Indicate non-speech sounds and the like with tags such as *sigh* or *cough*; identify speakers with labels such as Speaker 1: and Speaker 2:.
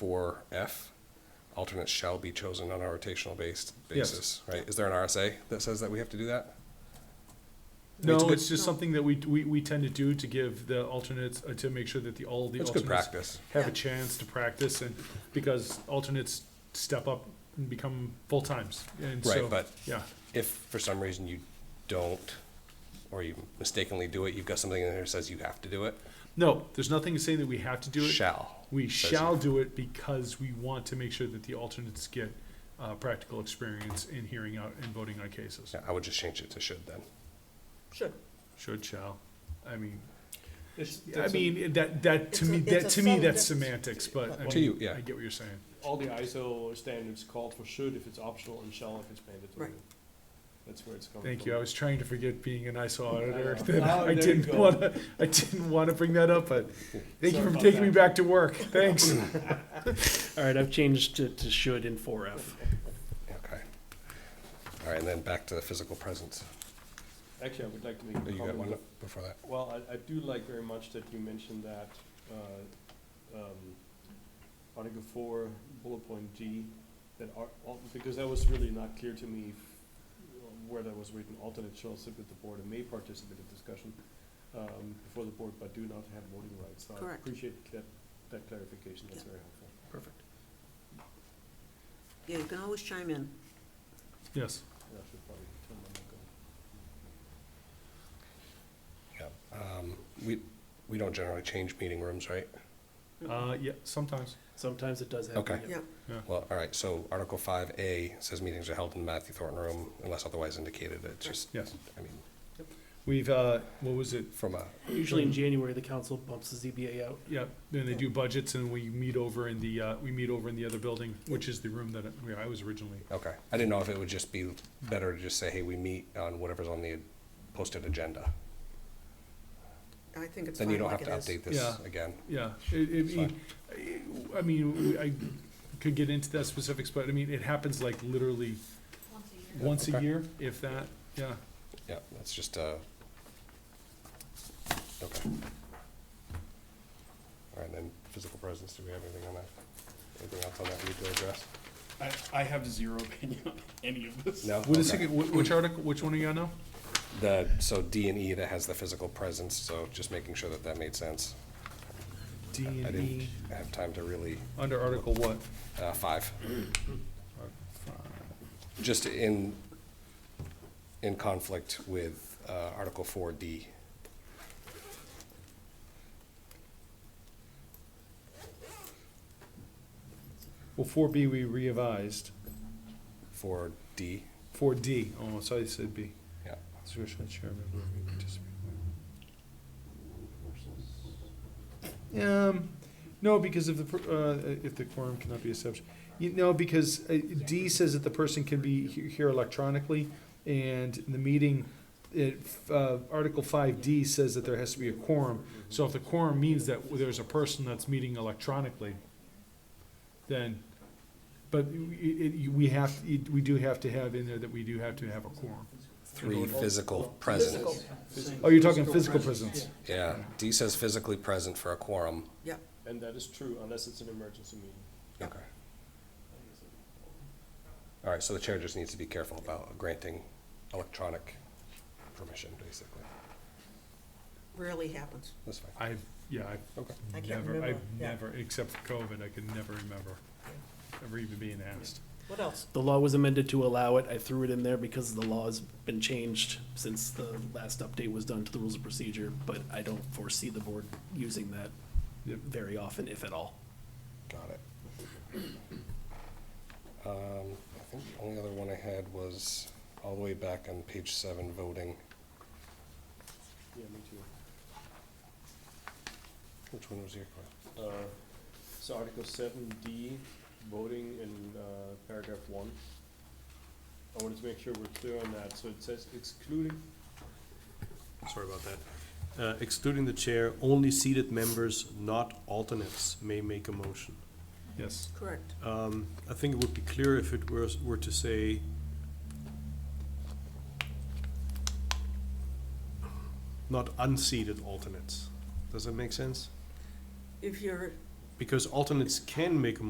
Speaker 1: for F, alternates shall be chosen on a rotational based
Speaker 2: Yes.
Speaker 1: basis, right? Is there an RSA that says that we have to do that? It's
Speaker 2: No,
Speaker 1: good-
Speaker 2: it's just something that we, we, we tend to do to give the alternates, uh, to make sure that the, all the
Speaker 1: It's good
Speaker 2: alternates
Speaker 1: practice.
Speaker 2: have a chance to practice and, because alternates step up and become full-times. And
Speaker 1: Right,
Speaker 2: so,
Speaker 1: but
Speaker 2: yeah,
Speaker 1: if for some reason you don't, or you mistakenly do it, you've got something in there that says you have to do it,
Speaker 2: no, there's nothing saying that we have to do it.
Speaker 1: shall.
Speaker 2: We
Speaker 1: says
Speaker 2: shall
Speaker 1: it.
Speaker 2: do it because we want to make sure that the alternates get, uh, practical experience in hearing out and voting on cases.
Speaker 1: Yeah, I would just change it to should then.
Speaker 3: Should.
Speaker 2: Should, shall, I mean,
Speaker 3: It's,
Speaker 2: I
Speaker 3: that's a-
Speaker 2: mean, that, that, to
Speaker 4: It's a-
Speaker 2: me, that,
Speaker 4: it's a
Speaker 2: to me,
Speaker 4: subtle
Speaker 2: that's
Speaker 4: difference.
Speaker 2: semantics, but I
Speaker 1: To you,
Speaker 2: mean,
Speaker 1: yeah.
Speaker 2: I get what you're saying.
Speaker 3: all the ISO standards called for should if it's optional and shall if it's mandatory.
Speaker 4: Right.
Speaker 3: That's where it's coming from.
Speaker 2: Thank you. I was trying to forget being an ISO auditor.
Speaker 3: know.
Speaker 2: That *laughs*
Speaker 3: Oh,
Speaker 2: I
Speaker 3: there you
Speaker 2: didn't
Speaker 3: go.
Speaker 2: want to. I didn't want to bring that up, but thank
Speaker 3: Sorry
Speaker 2: you for
Speaker 3: about
Speaker 2: taking me
Speaker 3: that.
Speaker 2: back to work.
Speaker 3: *coughs*
Speaker 2: Thanks.
Speaker 5: All right, I've changed to, to should in four F.
Speaker 1: Okay. All right, and then back to the physical presence.
Speaker 3: Actually, I would like to make a
Speaker 1: Oh,
Speaker 3: comment.
Speaker 1: You got one before that?
Speaker 3: Well, I, I do like very much that you mentioned that, uh, um, Article four, bullet point G, that are, al- because that was really not clear to me f- where that was written, alternate shall sit with the board and may participate in discussion, um, before the board, but do not have voting rights. So I
Speaker 4: Correct.
Speaker 3: Appreciate that, that clarification, that's
Speaker 4: Yeah.
Speaker 3: very helpful.
Speaker 1: Perfect.
Speaker 4: Yeah, you can always chime in.
Speaker 2: yes.
Speaker 3: Yeah, I should probably turn my mic on.
Speaker 1: Yeah. Um, We, we don't generally change meeting rooms, right?
Speaker 2: Uh, yeah. Sometimes.
Speaker 5: Sometimes it does happen.
Speaker 1: Okay.
Speaker 5: yeah.
Speaker 4: Yeah,
Speaker 1: Well, all right, so Article five A says meetings are held in the Matthew Thornton Room unless otherwise indicated. It's just,
Speaker 2: Yes.
Speaker 1: I mean,
Speaker 2: We've. Uh, what was it? Um,
Speaker 1: from a,
Speaker 5: Usually in January, the council bumps the ZBA out.
Speaker 2: Yeah. Then they do budgets, and we meet over in the. Uh, we meet over in the other building, which is the room that where I was originally.
Speaker 1: okay. I didn't know if it would just be better to just say, hey, we meet on whatever's on the posted agenda.
Speaker 4: I think it's
Speaker 1: Then you
Speaker 4: fine
Speaker 1: don't
Speaker 4: like
Speaker 1: have
Speaker 4: it
Speaker 1: to
Speaker 4: is.
Speaker 1: update this
Speaker 2: Yeah.
Speaker 1: again.
Speaker 2: Yeah. It, it,
Speaker 1: Fine.
Speaker 2: I mean, I could get into that specifics, but I mean, it happens like literally once a
Speaker 1: Okay.
Speaker 2: year, if that. Yeah.
Speaker 1: Yeah, that's just, uh, okay. All right, then physical presence, do we have anything on that? Anything else on that we need to address?
Speaker 6: I, I have zero *laughs* opinion on any of this.
Speaker 1: No?
Speaker 2: What is
Speaker 1: Okay.
Speaker 2: it? wh- Which article? Which one are you on now?
Speaker 1: The, so D and E that has the physical presence, so just making sure that that made sense.
Speaker 2: D
Speaker 1: I
Speaker 2: and
Speaker 1: didn't
Speaker 2: E
Speaker 1: have time to really,
Speaker 2: under Article what?
Speaker 1: uh, five. Just in, in conflict with, uh, Article four D.
Speaker 2: Well, four B we revised.
Speaker 1: Four D,
Speaker 2: Four D. Oh, so I said B.
Speaker 1: yeah.
Speaker 2: Supervisor Chairman. Um, no, because if the, per- uh, if the quorum cannot be established, you know, because uh, D says that the person can be he- here electronically, and the meeting, it, uh, Article five D says that there has to be a quorum. So if the quorum means that there's a person that's meeting electronically, then, but it, it, we have, we do have to have in there that we do have to have a quorum.
Speaker 1: Three, physical presence.
Speaker 2: Oh, you're talking physical presence.
Speaker 1: Yeah, D says physically present for a quorum.
Speaker 4: Yep,
Speaker 3: And that is true unless it's an emergency meeting.
Speaker 1: Okay. All right, so the chair just needs to be careful about granting electronic permission, basically.
Speaker 4: rarely happens.
Speaker 1: That's fine.
Speaker 2: I've, yeah,
Speaker 1: Okay.
Speaker 4: I
Speaker 2: I've
Speaker 4: can't
Speaker 2: never,
Speaker 4: remember.
Speaker 2: I've
Speaker 4: Yeah.
Speaker 2: never, except for COVID, I could never remember, ever even being asked.
Speaker 4: What else?
Speaker 5: The law was amended to allow it. I threw it in there because the law's been changed since the last update was done to the rules of procedure, but I don't foresee the board using that
Speaker 2: Yep.
Speaker 5: very often, if at all.
Speaker 1: Got it. Um, I think the only other one I had was all the way back on page seven, voting.
Speaker 3: Yeah, me too.
Speaker 1: Which one was your,
Speaker 3: Uh, So Article seven D, voting in uh, paragraph one. I wanted to make sure we're clear on that, so it says excluding. Sorry about that. Uh, Excluding the chair, only seated members, not alternates, may make a motion.
Speaker 2: Yes,
Speaker 4: Correct.
Speaker 3: Um, I think it would be clear if it were, were to say. Not unseated alternates. Does that make sense?
Speaker 4: If you're
Speaker 3: Because alternates can make a